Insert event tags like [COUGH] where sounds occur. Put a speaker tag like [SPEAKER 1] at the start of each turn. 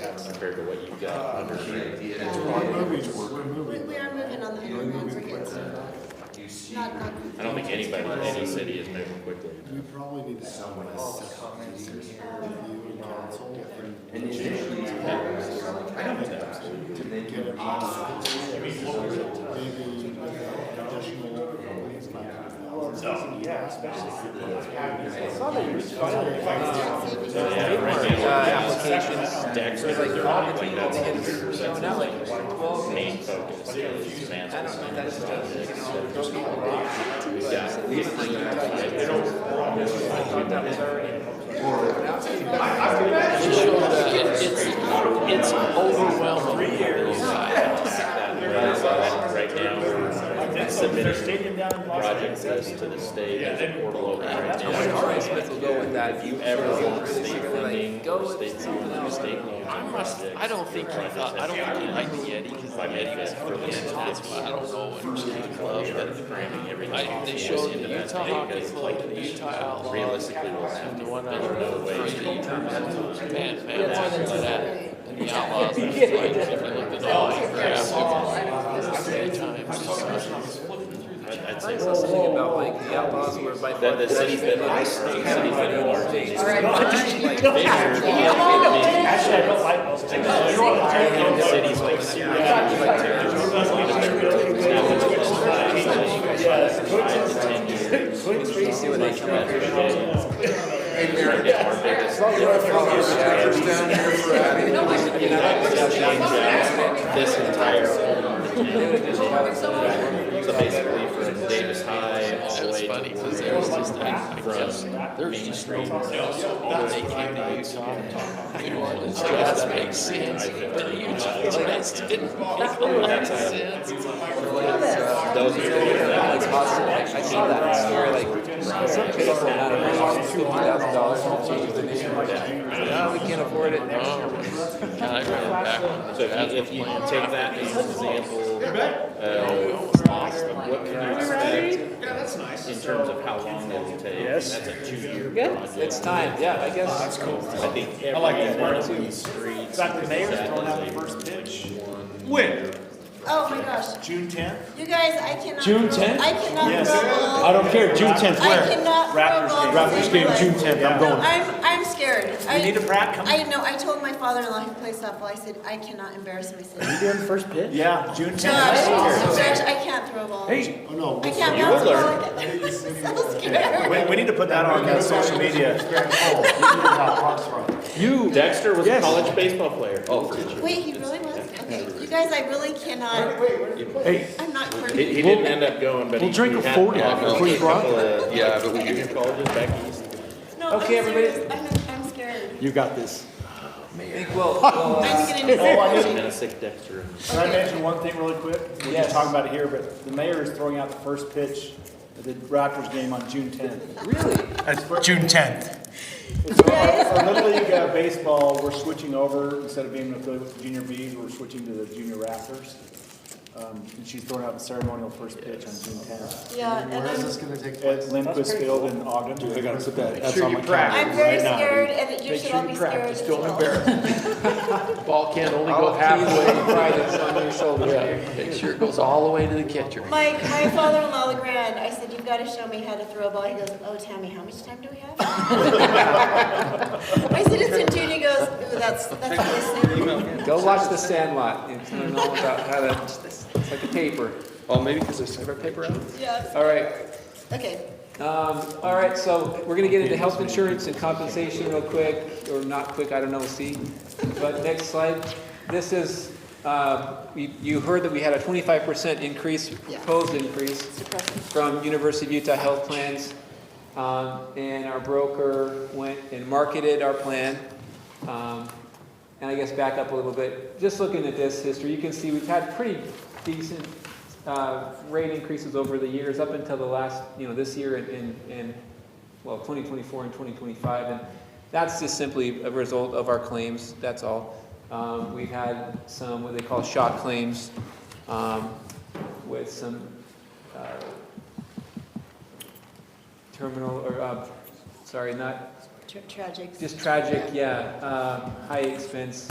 [SPEAKER 1] compared to what you've got
[SPEAKER 2] Uh,
[SPEAKER 1] under.
[SPEAKER 3] movies were, we're
[SPEAKER 4] We, we are moving on the homeland, we're getting some,
[SPEAKER 2] You see,
[SPEAKER 4] not, not.
[SPEAKER 1] I don't think anybody in any city is moving quickly.
[SPEAKER 3] We probably need to sell one
[SPEAKER 2] all
[SPEAKER 3] as
[SPEAKER 2] the comments in here.
[SPEAKER 3] review and council and
[SPEAKER 2] And initially, it was like, I don't know. And then
[SPEAKER 3] get
[SPEAKER 2] you
[SPEAKER 3] it on maybe additional.
[SPEAKER 5] Oh, yeah, especially.
[SPEAKER 1] Yeah, right now,
[SPEAKER 5] applications.
[SPEAKER 1] Dax is already like that's, that's like main focus. is man's
[SPEAKER 6] It's overwhelming.
[SPEAKER 1] Right right now, we're
[SPEAKER 5] Their
[SPEAKER 1] submitting
[SPEAKER 5] stadium down in Los
[SPEAKER 1] project
[SPEAKER 5] Angeles.
[SPEAKER 1] list to the state as a portal over right now.
[SPEAKER 6] Our estimate will go with that. If you
[SPEAKER 1] Ever
[SPEAKER 6] really
[SPEAKER 1] want
[SPEAKER 6] really
[SPEAKER 1] state
[SPEAKER 6] like,
[SPEAKER 1] funding
[SPEAKER 6] go
[SPEAKER 1] or
[SPEAKER 6] with
[SPEAKER 1] state
[SPEAKER 6] something
[SPEAKER 1] loans,
[SPEAKER 6] else.
[SPEAKER 1] state loans
[SPEAKER 6] I
[SPEAKER 1] on
[SPEAKER 6] must,
[SPEAKER 1] projects?
[SPEAKER 6] I don't think he thought, I don't think he liked the Yeti because the
[SPEAKER 1] By
[SPEAKER 6] Yeti was
[SPEAKER 1] mid-fifth, early
[SPEAKER 6] really
[SPEAKER 1] sixth,
[SPEAKER 6] into that's why I don't know what he
[SPEAKER 1] we are
[SPEAKER 6] loved.
[SPEAKER 1] cramming
[SPEAKER 6] But
[SPEAKER 1] everything.
[SPEAKER 6] I, they
[SPEAKER 1] into
[SPEAKER 6] showed the
[SPEAKER 1] that
[SPEAKER 6] Utah
[SPEAKER 1] thing
[SPEAKER 6] Hockey
[SPEAKER 1] because,
[SPEAKER 6] Club,
[SPEAKER 1] like,
[SPEAKER 6] the Utah Outlaws,
[SPEAKER 1] Realistically, we'll have
[SPEAKER 6] and
[SPEAKER 1] to.
[SPEAKER 6] the one I was crazy. Man, man, that's into that. And the Outlaws, like, if you looked at the line graph, it was like three times. the size.
[SPEAKER 1] I'd I'd say
[SPEAKER 6] That's the thing about like the Outlaws were by far.
[SPEAKER 1] that the cities that are, the cities that are large.
[SPEAKER 4] All right, fine.
[SPEAKER 1] They are
[SPEAKER 5] Actually, I don't like most.
[SPEAKER 1] the cities like Syria, like terrorism, five to ten years. Our biggest- This entire So basically from Davis High all the
[SPEAKER 6] It's
[SPEAKER 1] way
[SPEAKER 6] funny
[SPEAKER 1] to
[SPEAKER 6] because there was just like, I just,
[SPEAKER 1] from Main Street.
[SPEAKER 6] when they came to Utah, New Orleans just makes sense, but Utah just didn't make a lot of sense.
[SPEAKER 1] Those are the-
[SPEAKER 6] I saw that story, like, some people had around fifty thousand dollars to change the name of No, we can't afford it. Oh, God, I ran back on
[SPEAKER 1] So if you, if you take that as an example, uh, what can you expect? In terms of how long it will take. Yes. That's a two-year project.
[SPEAKER 6] It's time, yeah, I
[SPEAKER 7] Oh,
[SPEAKER 6] guess. That's cool.
[SPEAKER 1] I think every one of these streets.
[SPEAKER 5] Fact, the mayor's throwing out the first pitch. When?
[SPEAKER 4] Oh, my gosh,
[SPEAKER 5] June tenth?
[SPEAKER 4] you guys, I cannot.
[SPEAKER 7] June 10th?
[SPEAKER 4] I cannot.
[SPEAKER 5] Yes.
[SPEAKER 4] roll.
[SPEAKER 7] I don't care, June tenth,
[SPEAKER 4] I
[SPEAKER 7] where?
[SPEAKER 4] cannot.
[SPEAKER 5] Raptors
[SPEAKER 4] roll
[SPEAKER 5] game.
[SPEAKER 4] all
[SPEAKER 7] Raptors
[SPEAKER 4] the
[SPEAKER 7] game,
[SPEAKER 4] way.
[SPEAKER 7] June tenth, I'm going.
[SPEAKER 4] I'm, I'm scared. I
[SPEAKER 5] need a brat coming.
[SPEAKER 4] I know, I told my father-in-law who plays softball, I said, I cannot embarrass myself.
[SPEAKER 7] doing first pitch?
[SPEAKER 5] Yeah, June
[SPEAKER 4] Josh, Josh, I can't throw a ball. I
[SPEAKER 7] Hey,
[SPEAKER 3] Oh, no.
[SPEAKER 4] can't bounce a ball like that. [LAUGHS] I'm so scared.
[SPEAKER 5] We, we need to put that on uh, social media.
[SPEAKER 7] you,
[SPEAKER 1] Dexter was a
[SPEAKER 7] Yes.
[SPEAKER 1] college baseball player. Oh, for sure.
[SPEAKER 4] Wait, he really was? Okay, you guys, I really cannot,
[SPEAKER 7] hey,
[SPEAKER 4] I'm not
[SPEAKER 1] He,
[SPEAKER 4] coordinated.
[SPEAKER 1] he didn't end up going, but he.
[SPEAKER 7] we'll drink
[SPEAKER 1] he
[SPEAKER 7] a
[SPEAKER 1] had-
[SPEAKER 7] 40
[SPEAKER 1] had
[SPEAKER 7] before you
[SPEAKER 1] a
[SPEAKER 7] brought
[SPEAKER 1] couple of,
[SPEAKER 6] Yeah,
[SPEAKER 1] like, Junior colleges back east.
[SPEAKER 4] No, I'm
[SPEAKER 6] Okay, everybody.
[SPEAKER 4] serious. I'm, I'm scared.
[SPEAKER 7] you got this.
[SPEAKER 6] Think, well, uh, well,
[SPEAKER 4] I'm just getting discouraged.
[SPEAKER 1] And a sick Dexter.
[SPEAKER 5] Can I mention one thing really quick? We're
[SPEAKER 6] Yes.
[SPEAKER 5] just talking about it here, but the mayor is throwing out the first pitch of the Raptors game on June tenth.
[SPEAKER 6] really?
[SPEAKER 7] June tenth.
[SPEAKER 5] Our Little League uh, Baseball, we're switching over, instead of being an affiliate with the Junior Bs, we're switching to the Junior Raptors. Um, and she's throwing out the ceremonial first pitch on June tenth.
[SPEAKER 4] Yeah, and
[SPEAKER 3] Where is
[SPEAKER 4] I'm,
[SPEAKER 3] this gonna take
[SPEAKER 5] At
[SPEAKER 3] place?
[SPEAKER 5] Lindquist Field in Ogden. I gotta put that.
[SPEAKER 7] That's on my calendar.
[SPEAKER 4] I'm very scared and that you should all be scared as well.
[SPEAKER 6] [LAUGHS]
[SPEAKER 4] [LAUGHS]
[SPEAKER 6] Ball can only go halfway. on your shoulder. Make sure it goes all the way to the catcher.
[SPEAKER 4] My, my father-in-law, LeGrand, I said, you've got to show me how to throw a ball. He goes, oh, Tammy, how much time do we have? I said, it's in June. He goes, ooh, that's, that's really soon.
[SPEAKER 6] Go watch The Sandlot. It's learn all about how to, it's like a paper. Well, Oh, maybe because there's separate paper out.
[SPEAKER 4] Yeah,
[SPEAKER 6] All right.
[SPEAKER 4] okay.
[SPEAKER 6] Um, all right, so we're gonna get into health insurance and compensation real quick, or not quick, I don't know, we'll see. But next slide. This is, uh, you, you heard that we had a twenty-five percent increase, proposed increase
[SPEAKER 4] depressing.
[SPEAKER 6] from University of Utah Health Plans. Um, and our broker went and marketed our plan. Um, and I guess back up a little bit, just looking at this history, you can see we've had pretty decent uh, rate increases over the years, up until the last, you know, this year and- and, and, well, 2024 and 2025. And that's just simply a result of our claims, that's all. Um, We've had some, what they call shock claims, um, with some uh, terminal, or, uh, sorry, not
[SPEAKER 4] Tra- Tragic.
[SPEAKER 6] just tragic, yeah, um, uh, high expense